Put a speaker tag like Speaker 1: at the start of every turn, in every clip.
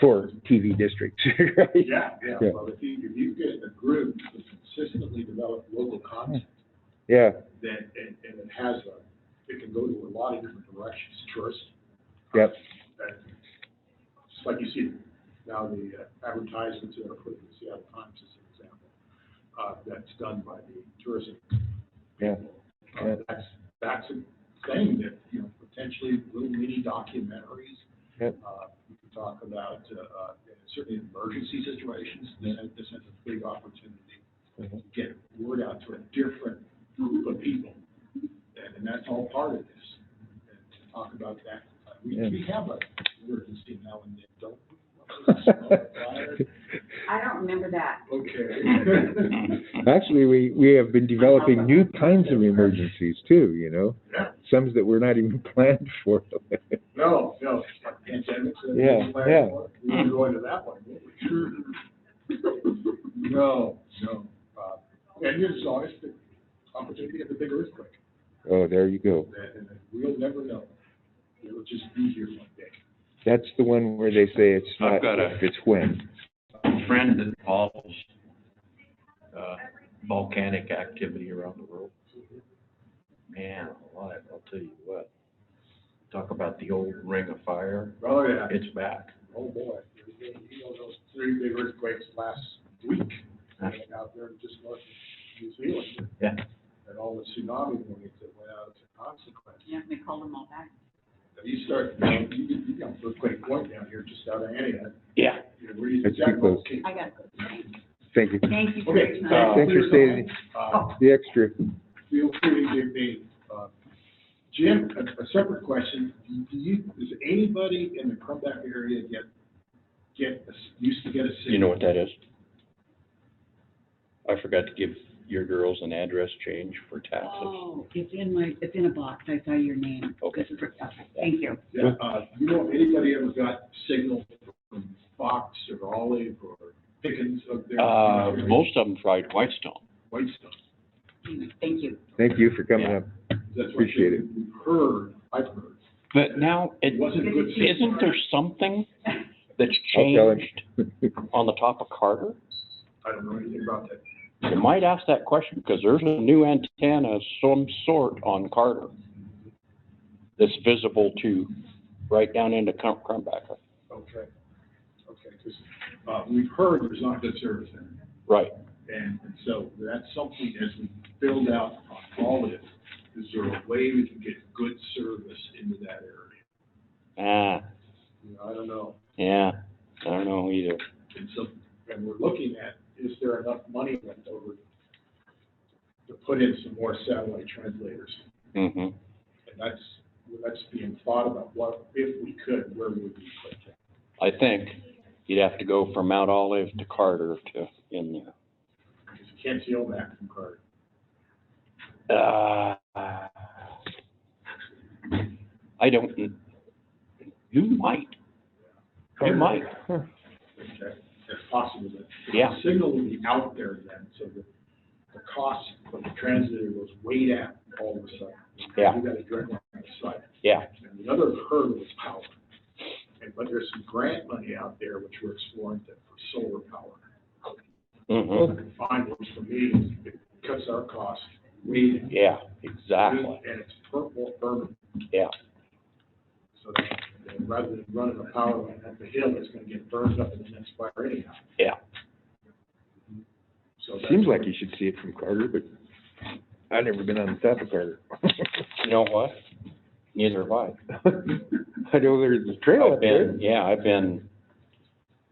Speaker 1: for TV districts, right?
Speaker 2: Yeah, yeah,
Speaker 1: Yeah.
Speaker 2: well, if you, if you get a group that consistently develops local content,
Speaker 1: Yeah,
Speaker 2: then, and, and it has a, it can go to a lot of different directions, tourist.
Speaker 1: Yep.
Speaker 2: And Just like you see now the uh, advertisements that are put in the Seattle Times as an example, uh, that's done by the tourism.
Speaker 1: Yeah,
Speaker 2: people. Uh,
Speaker 1: yeah.
Speaker 2: That's, that's a thing that, you know, potentially little mini documentaries.
Speaker 1: Yep.
Speaker 2: Uh, You can talk about, uh, uh, certainly in emergency situations, this, this is a big opportunity
Speaker 1: Mhm.
Speaker 2: get word out to a different group of people. And, and that's all part of this, and to talk about that. uh, We,
Speaker 1: Yeah.
Speaker 2: we have a emergency now and then, don't. we?
Speaker 3: I don't remember that.
Speaker 2: Okay.
Speaker 1: actually, we, we have been developing new kinds of emergencies too, you know?
Speaker 2: Yeah.
Speaker 1: Some that were not even planned for.
Speaker 2: No, no, it's like pandemics. and
Speaker 1: Yeah,
Speaker 2: things like
Speaker 1: yeah.
Speaker 2: that. We didn't go into that one, did we? No, no. Uh, And there's always the opportunity of the big earthquake.
Speaker 1: Oh, there you go.
Speaker 2: that- and We'll never know. It'll just be here one day.
Speaker 1: That's the one where they say it's
Speaker 4: I've
Speaker 1: not
Speaker 4: got a-
Speaker 1: if, it's when.
Speaker 4: friend that follows uh, volcanic activity around the world. Man, alive, I'll tell you what. Talk about the old ring of fire,
Speaker 2: Oh, yeah.
Speaker 4: it's back.
Speaker 2: Oh, boy. You know, those three big earthquakes last week,
Speaker 4: Huh.
Speaker 2: out there in just north of New Zealand.
Speaker 4: Yeah.
Speaker 2: And all the tsunami warnings that went out as a consequence.
Speaker 3: Yeah, we called them all back.
Speaker 2: Now, You start, you know, you, you got earthquake point down here just out of Antioch.
Speaker 4: Yeah.
Speaker 2: You know, where you-
Speaker 1: That's too close.
Speaker 2: Okay.
Speaker 3: I got it.
Speaker 1: Thank you.
Speaker 3: Thank Oh. you for your
Speaker 2: Okay.
Speaker 3: time.
Speaker 2: uh,
Speaker 1: Thanks for
Speaker 2: we're
Speaker 1: staying.
Speaker 2: done. Uh,
Speaker 1: The extra.
Speaker 2: feel free to give me, uh, Jim, a, a separate question. Do you, does anybody in the Crumback area get, get, a s- used to get a signal?
Speaker 5: You know what that is? I forgot to give your girls an address change for taxes.
Speaker 3: Oh, it's in my, it's in a box. I saw your name.
Speaker 5: Okay.
Speaker 3: This is for- okay, Thank you.
Speaker 2: Yeah, uh, you know, anybody ever got signal from Fox or Olive or Pickens up there?
Speaker 5: Uh, most of them tried Whitestone.
Speaker 2: Whitestone.
Speaker 3: Thank you.
Speaker 1: Thank you for coming up.
Speaker 2: That's what
Speaker 1: Appreciate it.
Speaker 2: we've Heard, I've heard.
Speaker 5: But now, it,
Speaker 2: It wasn't good. signal.
Speaker 5: isn't there something that's
Speaker 1: I'll tell him.
Speaker 5: changed on the top of Carter?
Speaker 2: I don't know anything about that.
Speaker 5: You might ask that question, because there's a new antenna of some sort on Carter that's visible to, right down into Crum- Crumbacker.
Speaker 2: Okay. Okay, 'cause, uh, we've heard there's not good service there.
Speaker 5: Right,
Speaker 2: And and so that's something as we build out on all this, is there a way we can get good service into that area?
Speaker 5: ah,
Speaker 2: You know, I don't know.
Speaker 5: yeah, I don't know either.
Speaker 2: And so, and we're looking at, is there enough money left over to put in some more satellite translators?
Speaker 5: hmm
Speaker 2: And that's, that's being thought about, what, if we could, where would we put that?
Speaker 5: I think you'd have to go from Mount Olive to Carter to in there.
Speaker 2: Because you can't see all that from Carter.
Speaker 5: Uh, I don't, mm, you might, you might,
Speaker 2: Okay, If possible, but the
Speaker 5: Yeah.
Speaker 2: Signal would be out there then, so that the cost of the translator goes way down all of a sudden.
Speaker 5: Yeah.
Speaker 2: You got a direct line of sight.
Speaker 5: yeah,
Speaker 2: And the other hurdle is power. And, but there's some grant money out there which we're exploring that for solar power. Oh.
Speaker 5: hmm
Speaker 2: Find works for me, it cuts our cost way down.
Speaker 5: yeah, exactly,
Speaker 2: And it's purple urban,
Speaker 5: yeah.
Speaker 2: so that you know, rather than running a power line up the hill, it's gonna get burned up in the next fire anyhow.
Speaker 5: Yeah.
Speaker 2: So that's-
Speaker 1: Seems like you should see it from Carter, but I've never been on the top of Carter.
Speaker 5: You know what? Neither have I.
Speaker 1: I know there's a trail
Speaker 5: I've
Speaker 1: up there.
Speaker 5: been, yeah, I've been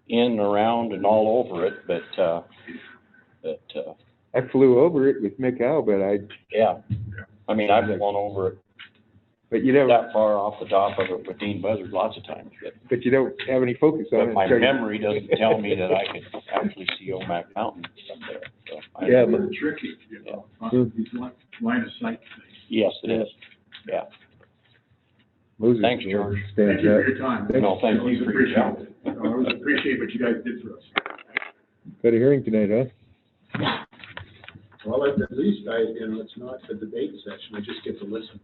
Speaker 5: in, around and all over it, but, uh, but, uh,
Speaker 1: I flew over it with Mick Albert, I,
Speaker 5: yeah. I mean, I've flown over it
Speaker 1: but you never,
Speaker 5: that far off the top of it with Dean Buzzard lots of times, but
Speaker 1: but you don't have any focus on it.
Speaker 5: But my
Speaker 1: until you-
Speaker 5: memory doesn't tell me that I could actually see Omak Mountain from there, so. I-
Speaker 1: Yeah, but-
Speaker 2: They're tricky, you know,
Speaker 1: Hmm.
Speaker 2: these li- line of sight things.
Speaker 5: Yes, it is.
Speaker 1: Moses
Speaker 5: Thanks, George.
Speaker 1: stands
Speaker 2: Thank you for
Speaker 1: out.
Speaker 2: your time.
Speaker 5: No, thank you for your help.
Speaker 2: I always appreciate what you guys did for us.
Speaker 1: Got a hearing tonight, huh?
Speaker 2: Well, at the least, I, you know, it's not a debate session, I just get to listen.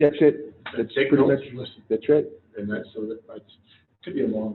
Speaker 1: That's it. That's
Speaker 2: Take
Speaker 1: pretty
Speaker 2: notes
Speaker 1: much-
Speaker 2: and listen.
Speaker 1: That's right.
Speaker 2: And that's, so that, that's- could be a long